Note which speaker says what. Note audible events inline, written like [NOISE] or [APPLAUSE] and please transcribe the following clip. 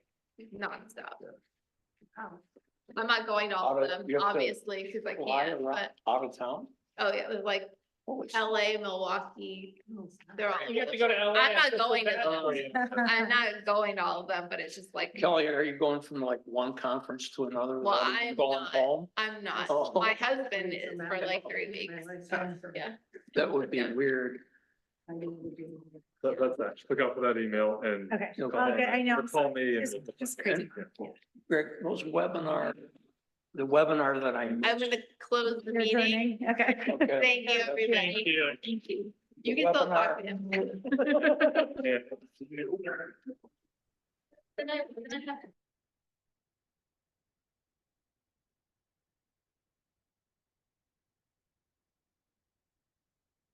Speaker 1: nonstop.
Speaker 2: Oh.
Speaker 1: I'm not going to all
Speaker 3: Out
Speaker 1: of
Speaker 3: of-
Speaker 1: them,
Speaker 3: you have to
Speaker 1: obviously, because I
Speaker 3: Fly
Speaker 1: can't,
Speaker 3: around,
Speaker 1: but,
Speaker 3: out of town?
Speaker 1: oh, yeah, it was like
Speaker 3: Holy shit.
Speaker 1: LA, Milwaukee, they're all.
Speaker 4: You have to go to LA.
Speaker 1: I'm not
Speaker 4: I feel so
Speaker 1: going to
Speaker 4: bad for
Speaker 1: those.
Speaker 4: you.
Speaker 1: [LAUGHS] I'm not going to all of them, but it's just like,
Speaker 3: Kelly, are you going from like one conference to another?
Speaker 1: Well,
Speaker 3: without even
Speaker 1: I'm
Speaker 3: Going
Speaker 1: not.
Speaker 3: home?
Speaker 1: I'm not,
Speaker 3: Oh.
Speaker 1: my husband is for like three weeks, yeah.
Speaker 3: That would be
Speaker 1: Yeah.
Speaker 3: weird.
Speaker 5: That, that's actually, look out for that email and.
Speaker 2: Okay,
Speaker 3: You'll go
Speaker 2: Oh,
Speaker 3: home.
Speaker 2: good, I know, I'm
Speaker 5: or Call
Speaker 2: sorry.
Speaker 5: me and.
Speaker 2: Just- just crazy.
Speaker 3: Greg, those webinar, the webinar that I
Speaker 1: I'm
Speaker 3: missed.
Speaker 1: gonna close the
Speaker 2: You're
Speaker 1: meeting,
Speaker 2: joining, okay.
Speaker 3: Okay.
Speaker 1: thank you,
Speaker 4: Thank
Speaker 1: everybody,
Speaker 4: you.
Speaker 1: thank you.
Speaker 3: The
Speaker 1: You can still talk
Speaker 3: webinar-
Speaker 1: to him.
Speaker 5: Yeah.
Speaker 1: Then I- then I have to